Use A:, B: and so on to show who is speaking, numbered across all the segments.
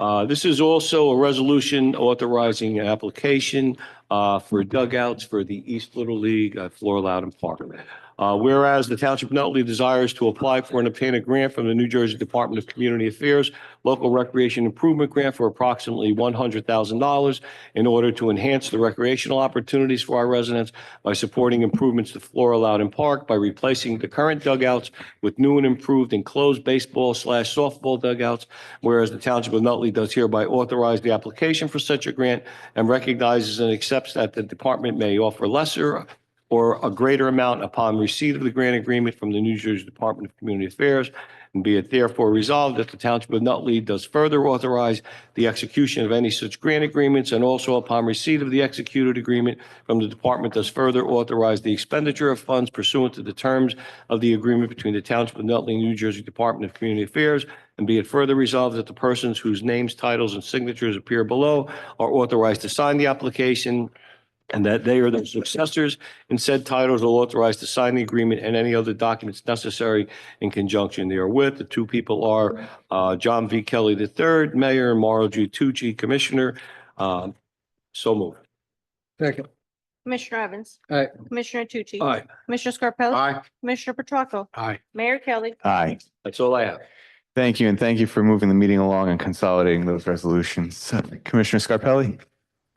A: Uh, This is also a resolution authorizing application uh, for dugouts for the East Little League at Floor Loudon Park. Uh, Whereas the Township of Nutley desires to apply for and obtain a grant from the New Jersey Department of Community Affairs Local Recreation Improvement Grant for approximately $100,000 in order to enhance the recreational opportunities for our residents by supporting improvements to Flora Loudon Park by replacing the current dugouts with new and improved enclosed baseball slash softball dugouts. Whereas the Township of Nutley does hereby authorize the application for such a grant and recognizes and accepts that the department may offer lesser or a greater amount upon receipt of the grant agreement from the New Jersey Department of Community Affairs. And be it therefore resolved that the Township of Nutley does further authorize the execution of any such grant agreements and also upon receipt of the executed agreement from the department does further authorize the expenditure of funds pursuant to the terms of the agreement between the Township of Nutley and New Jersey Department of Community Affairs. And be it further resolved that the persons whose names, titles, and signatures appear below are authorized to sign the application and that they or their successors in said titles are authorized to sign the agreement and any other documents necessary in conjunction therewith. The two people are uh, John V. Kelly III, Mayor, and Mauro Tucci, Commissioner. Um, So moved.
B: Second.
C: Commissioner Evans.
B: Aye.
C: Commissioner Tucci.
A: Aye.
C: Commissioner Scarpelli.
B: Aye.
C: Commissioner Petracca.
B: Aye.
C: Mayor Kelly.
D: Aye.
A: That's all I have.
D: Thank you, and thank you for moving the meeting along and consolidating those resolutions. Commissioner Scarpelli?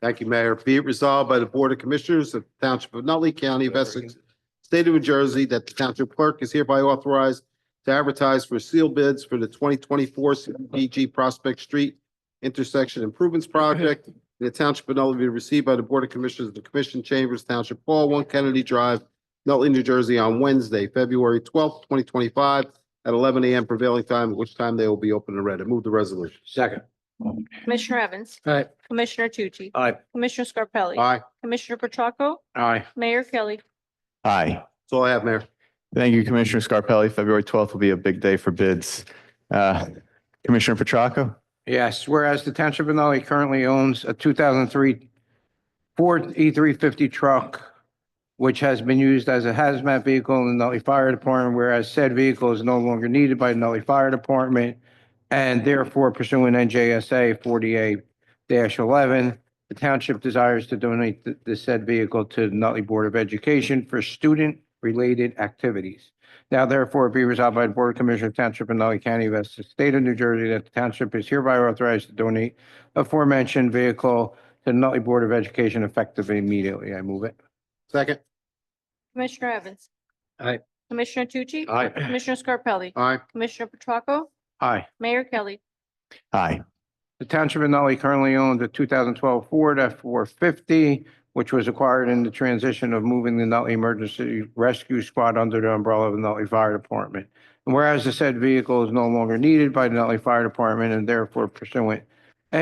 B: Thank you, Mayor. Be it resolved by the Board of Commissioners of the Township of Nutley County of Essex, State of New Jersey, that the Township Clerk is hereby authorized to advertise for sealed bids for the twenty twenty-four CDBG Prospect Street Intersection Improvements Project. in The Township of Nutley be received by the Board of Commissioners of the Commission Chambers, Township Hall, One Kennedy Drive, Nutley, New Jersey, on Wednesday, February twelfth, twenty twenty-five, at eleven AM prevailing time, at which time they will be open and read. I move the resolution.
A: Second.
C: Commissioner Evans.
B: Aye.
C: Commissioner Tucci.
A: Aye.
C: Commissioner Scarpelli.
B: Aye.
C: Commissioner Petracca.
B: Aye.
C: Mayor Kelly.
D: Aye.
B: That's all I have, Mayor.
D: Thank you, Commissioner Scarpelli. February 12th will be a big day for bids. Uh, Commissioner Petracca?
E: Yes, whereas the Township of Nutley currently owns a 2003 Ford E350 truck, which has been used as a hazmat vehicle in the Nutley Fire Department, whereas said vehicle is no longer needed by the Nutley Fire Department, and therefore pursuant NJSA 48-11, the township desires to donate the- the said vehicle to the Nutley Board of Education for student-related activities. Now therefore be resolved by the Board of Commissioners Township of Nutley County of Essex State of New Jersey that the township is hereby authorized to donate aforementioned vehicle to the Nutley Board of Education effective immediately. I move it.
B: Second.
C: Commissioner Evans.
B: Aye.
C: Commissioner Tucci.
A: Aye.
C: Commissioner Scarpelli.
B: Aye.
C: Commissioner Petracca.
E: Aye.
C: Mayor Kelly.
D: Aye.
E: The township of Nutley currently owns a two thousand twelve Ford F four fifty, which was acquired in the transition of moving the Nutley Emergency Rescue Squad under the umbrella of the Nutley Fire Department. And whereas the said vehicle is no longer needed by the Nutley Fire Department and therefore pursuant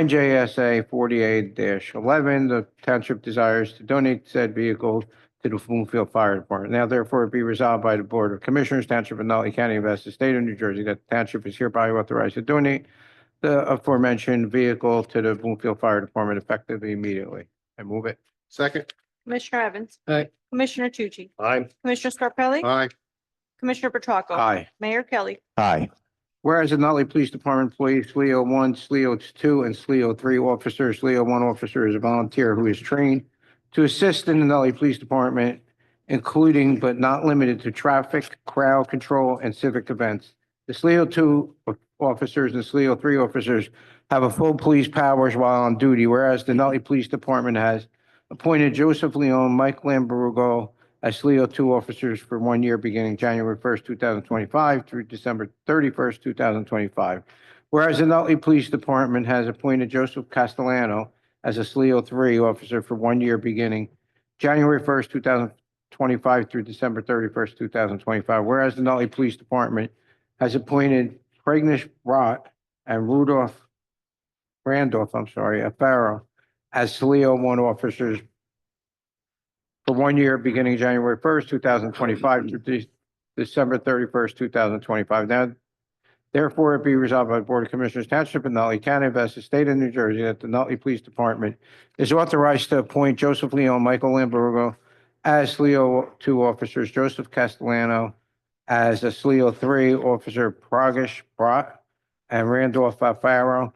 E: NJSA forty-eight eleven, the township desires to donate said vehicle to the Bloomfield Fire Department. Now therefore be resolved by the Board of Commissioners, Township of Nutley County of Essex, State of New Jersey, that the township is hereby authorized to donate the aforementioned vehicle to the Bloomfield Fire Department effective immediately. I move it.
B: Second.
C: Commissioner Evans.
B: Aye.
C: Commissioner Tucci.
A: Aye.
C: Commissioner Scarpelli.
B: Aye.
C: Commissioner Petracca.
E: Aye.
C: Mayor Kelly.
D: Aye.
E: Whereas the Nutley Police Department employees SLEO one, SLEO two, and SLEO three officers, SLEO one officer is a volunteer who is trained to assist in the Nutley Police Department, including but not limited to traffic, crowd control, and civic events. The SLEO two officers and SLEO three officers have a full police powers while on duty, whereas the Nutley Police Department has appointed Joseph Leon, Mike Lamborghini, as SLEO two officers for one year beginning January first, two thousand twenty-five through December thirty-first, two thousand twenty-five. Whereas the Nutley Police Department has appointed Joseph Castellano as a SLEO three officer for one year beginning January first, two thousand twenty-five through December thirty-first, two thousand twenty-five. Whereas the Nutley Police Department has appointed Pregnish Rott and Rudolph Randolph, I'm sorry, a Farrow as SLEO one officers for one year beginning January first, two thousand twenty-five through De- December thirty-first, two thousand twenty-five. Now, therefore, it be resolved by the Board of Commissioners Township of Nutley County of Essex State of New Jersey that the Nutley Police Department is authorized to appoint Joseph Leon, Michael Lamborghini as Leo two officers, Joseph Castellano as a Leo three officer, Pragesh Brat, and Randolph Alfaro